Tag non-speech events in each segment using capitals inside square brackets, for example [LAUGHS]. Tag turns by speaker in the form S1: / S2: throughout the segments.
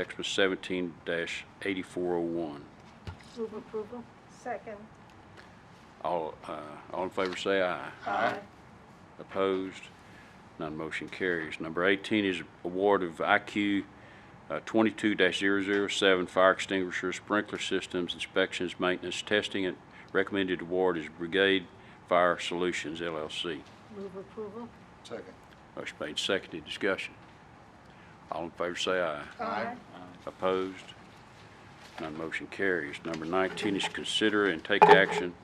S1: X was seventeen eighty-four oh one.
S2: Move approval.
S3: Second.
S1: All, uh, all in favor say aye.
S3: Aye.
S1: Opposed? None motion carries. Number 18 is award of IQ uh, 22-007 fire extinguisher sprinkler systems inspections, maintenance, testing, and recommended award is Brigade Fire Solutions LLC.
S2: Move approval.
S4: Second.
S1: Motion made, seconded, discussion. All in favor say aye.
S3: Aye.
S1: Opposed? None motion carries. Number 19 is consider and take action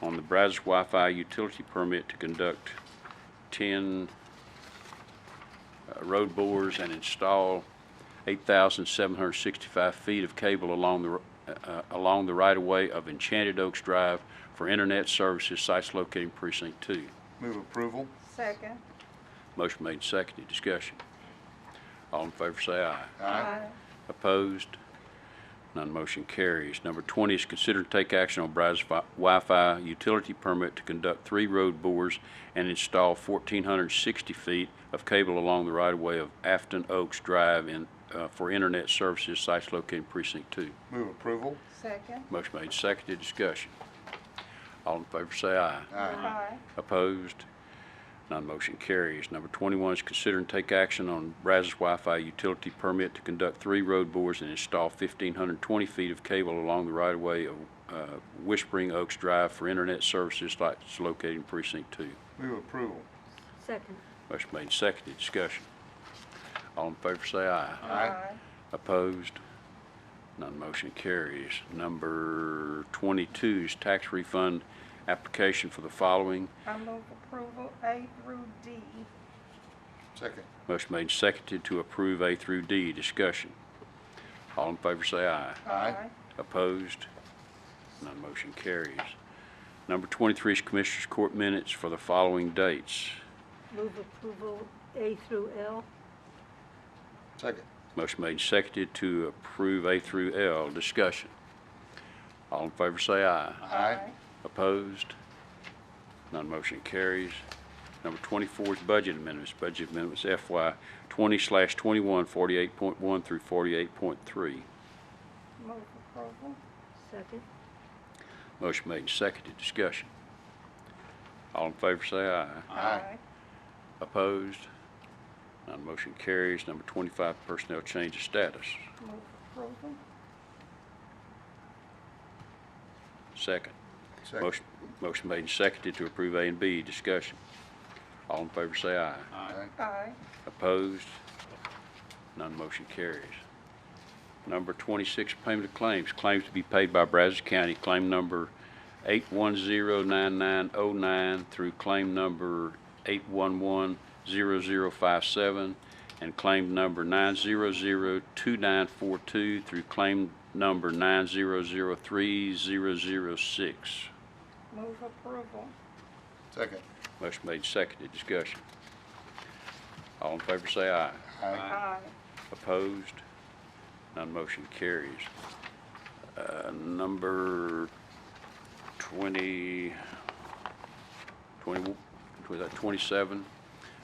S1: on the Brazos Wi-Fi utility permit to conduct 10 uh, road bores and install 8,765 feet of cable along the, r- uh, uh, along the right-of-way of Enchanted Oaks Drive for internet services sites located in precinct 2.
S4: Move approval.
S3: Second.
S1: Motion made, seconded, discussion. All in favor say aye.
S3: Aye.
S1: Opposed? None motion carries. Number 20 is consider to take action on Brazos Fi- Wi-Fi utility permit to conduct three road bores and install 1,460 feet of cable along the right-of-way of Afton Oaks Drive in, uh, for internet services sites located in precinct 2.
S4: Move approval.
S3: Second.
S1: Motion made, seconded, discussion. All in favor say aye.
S3: Aye.
S1: Opposed? Non-motion carries. Number 21 is consider and take action on Brazos Wi-Fi utility permit to conduct three road bores and install 1,520 feet of cable along the right-of-way of uh, Whispering Oaks Drive for internet services sites located in precinct 2.
S4: Move approval.
S2: Second.
S1: Motion made, and seconded, discussion. All in favor say aye.
S3: Aye.
S1: Opposed? None motion carries. Number 22 is tax refund application for the following.
S3: I move approval A through D.
S4: Second.
S1: Motion made and seconded to approve A through D. Discussion. All in favor say aye.
S4: Aye.
S1: Opposed? None motion carries. Number 23 is Commissioners Court minutes for the following dates.
S2: Move approval A through L.
S4: Second.
S1: Motion made and seconded to approve A through L. Discussion. All in favor say aye.
S4: Aye.
S1: Opposed? None motion carries. Number 24 is budget amendments. Budget amendments FY 20/21, 48.1 through 48.3.
S3: Move approval.
S2: Second.
S1: Motion made and seconded. Discussion. All in favor say aye.
S4: Aye.
S1: Opposed? None motion carries. Number 25, personnel change of status.
S3: Move approval.
S1: Second.
S4: Second.
S1: Motion motion made and seconded to approve A and B. Discussion. All in favor say aye.
S4: Aye.
S3: Aye.
S1: Opposed? None motion carries. Number 26, payment of claims. Claims to be paid by Brazos County, claim number 8109909 through claim number 8110057 and claim number 9002942 through claim number 9003006.
S3: Move approval.
S4: Second.
S1: Motion made, seconded. Discussion. All in favor say aye.
S4: Aye.
S3: Aye.
S1: Opposed? None motion carries. Uh, Number 20, 20 was that 27?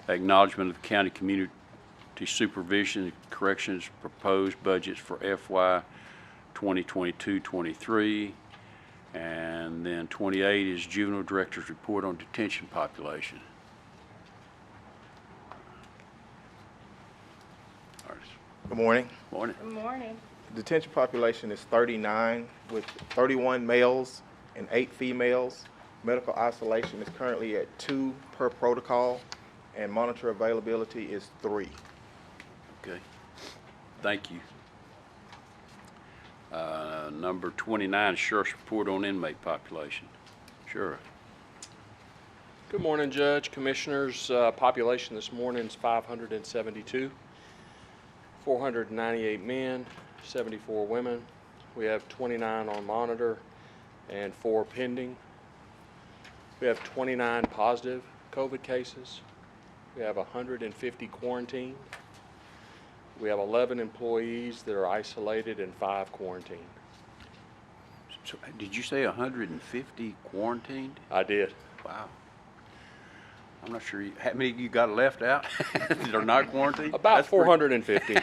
S1: Acknowledgement of the county community supervision and corrections proposed budgets for FY 2022-23. And then 28 is juvenile director's report on detention population. All right.
S5: Good morning.
S1: Morning.
S3: Good morning.
S5: Detention population is 39 with 31 males and eight females. Medical isolation is currently at two per protocol, and monitor availability is three.
S1: Okay. Thank you. Uh, Number 29, Sheriff's Report on Inmate Population. Sheriff,
S6: Good morning, Judge, Commissioners. Uh, Population this morning is 572, 498 men, 74 women. We have 29 on monitor and four pending. We have 29 positive COVID cases. We have 150 quarantined. We have 11 employees that are isolated and five quarantined.
S1: so, did you say 150 quarantined?
S6: I did.
S1: Wow. I'm not sure, you- how many you got [LAUGHS] left out that are not quarantined?
S6: About
S1: That's pretty-
S6: 450.